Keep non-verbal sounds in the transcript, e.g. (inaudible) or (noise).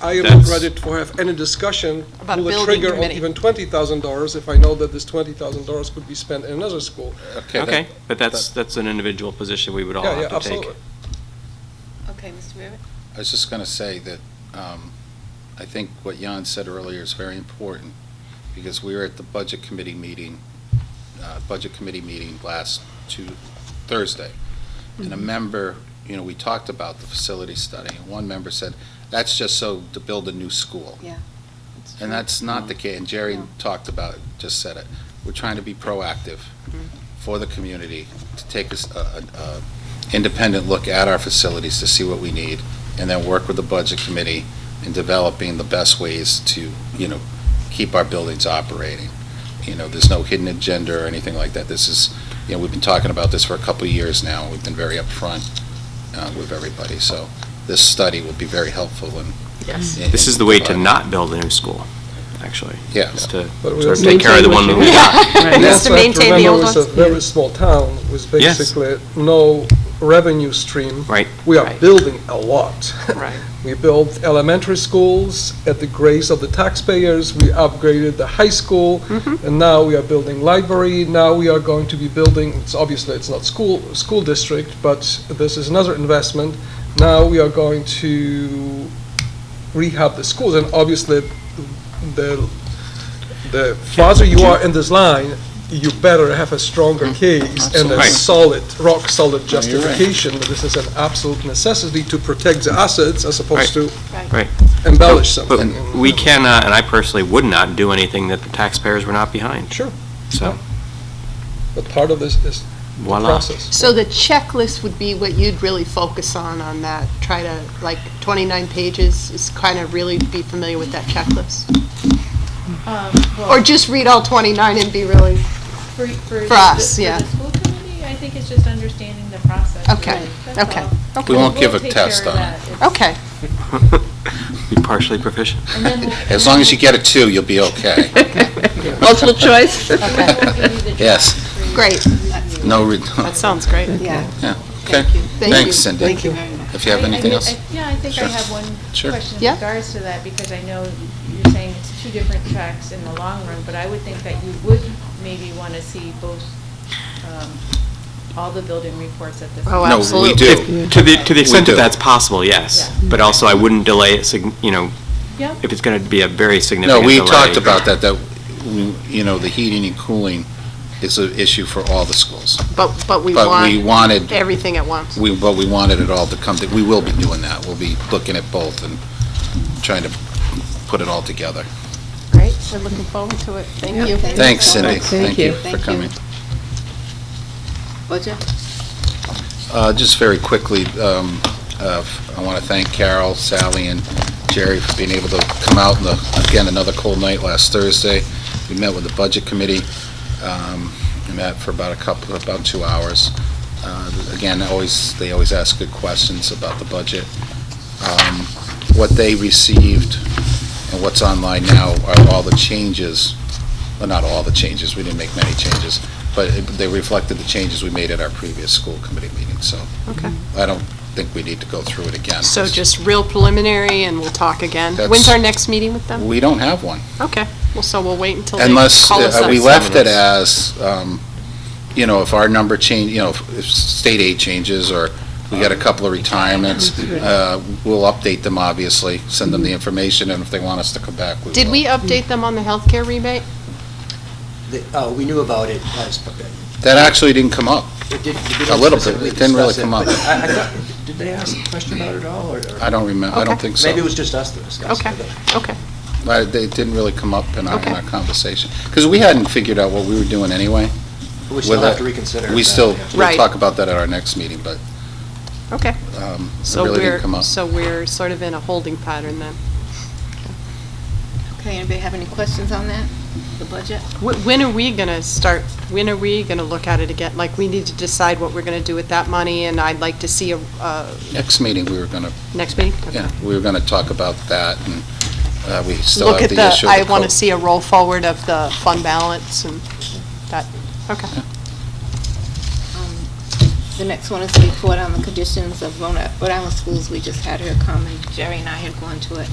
I am not That's- ready to have any discussion, About pull a building trigger on committee. even $20,000 if I know that this $20,000 could be spent in another school. Okay, but that's, that's an individual position we would all Yeah, yeah, have to take. absolutely. Okay, Mr. Weaver? I was just going to say that um, I think what Jan said earlier is very important, because we were at the Budget Committee meeting, uh, Budget Committee meeting last Tu- Thursday, and a member, you know, we talked about the facility study, and one member said, that's just so to build a new school. Yeah. And that's not the case, and Jerry No. talked about, it, just said it. We're trying to be proactive for the community, to take us a- a- a independent look at our facilities to see what we need, and then work with the budget committee in developing the best ways to, you know, keep our buildings operating. You know, there's no hidden agenda or anything like that. This is, you know, we've been talking about this for a couple of years now, and we've been very upfront uh, with everybody, so this study will be very helpful in. Yes. in- This is the way to in- not build a new school, actually. Yeah. Is to But we sort of also- take care of the one that we got. And Just also to have maintain the remember old it's ones? a very small town with Yes. basically no revenue stream. Right. We are Right. building a lot. Right. (laughs) We built elementary schools at the grace of the taxpayers, we upgraded the high school, Mm-hmm. and now we are building library, now we are going to be building, it's obviously, it's not school, school district, but this is another investment. Now we are going to rehab the schools, and obviously, the, the farther you are in this line, you better have a stronger case and a Mm-hmm. Right. solid, rock-solid No, you're right. justification that this is an absolute necessity to protect the assets as opposed to Right. Right. embellish But something. we cannot, and I personally would not, do anything that the taxpayers were not behind. Sure, So, but part of this is the voila. process. So the checklist would be what you'd really focus on, on that, try to, like, 29 pages, is kind of really be familiar with that checklist? (laughs) Or just read all 29 and be really, Um, For, for. For us, the- yeah. For the school committee, I think it's just understanding the process. Okay, really. That's okay, all. okay. We won't give a We'll take test care of on it. that. It's- okay, Be partially proficient. And then we'll. (laughs) As long as you get a two, you'll be (laughs) okay. Multiple choice? and then we'll give you the (laughs) draft Yes. for you to great, review. No, re- (laughs) That sounds great. yeah. okay. Thank you. Thanks, Cindy. Thank you very much. If you have I- I anything mean, else? I- Yeah, I think I Sure. have one Sure. question Yeah. in regards to that, because I know you're saying it's two different tracks in the long run, but I would think that you would maybe want to see both, um, all the building reports at the. same Oh, time. I- absolutely. No, we do. If- To the, to the extent We that do. that's possible, yes. But also, I wouldn't delay it, sig- you know, Yeah. if it's going to be a very significant No, delay. we talked about that, that, we- you know, the heating and cooling is an issue for all the schools. But, but we But we want wanted, everything at once. we, but we wanted it all to come, to- we will be doing that. We'll be looking at both and trying to put it all together. Great, we're looking forward to it, thank you. Thanks, Cindy. Thank you for Thank you. coming. Roger? Uh, Just very quickly, um, uh, I want to thank Carol, Sally, and Jerry for being able to come out, in the- again, another cold night last Thursday. We met with the Budget Committee, um, we met for about a couple, about two hours. Uh, Again, always, they always ask good questions about the budget. Um, What they received and what's online now are all the changes, well, not all the changes, we didn't make many changes, but it- they reflected the changes we made at our previous school committee meeting, so Okay. I don't think we need to go through it again. So just real preliminary, and we'll talk again. That's- When's our next meeting with them? We don't have one, Okay, well, so we'll wait until they call us unless, up. uh, we left it as, um, you know, if our number change, you know, if if state aid changes, or we got a couple of retirements, uh, we'll update them, obviously, send them the information, and if they want us to come back, we will. Mm-hmm. Did we update them on the healthcare rebate? The- Oh, we knew about it as, That actually didn't come up. it did. A little bit. It didn't really come up. Did they ask a question about it at all, or? or- I don't remember, I don't Okay. think so. Maybe it was just us that discussed it. Okay, okay. Uh, They didn't really come up in our, in our Okay. conversation. Because we hadn't figured out what we were doing anyway. But We still Well, have to reconsider. We that, still, yeah. we'll Right. talk about that at our next meeting, but Okay. um, it So really we're didn't come up. So we're sort of in a holding pattern then. Okay, anybody have any questions on that, the budget? Wh- When are we going to start, when are we going to look at it again? Like, we need to decide what we're going to do with that money, and I'd like to see a, uh, Next meeting, we were going to, next meeting? Okay. yeah, we were going to talk about that, and uh, we still Look have at the the, issue I of the want to code. see a roll forward of the fund balance and that, okay. Um, The next one is the report on the conditions of Rhode Rhode Island schools. We just had her come, and Jerry and I had gone to it.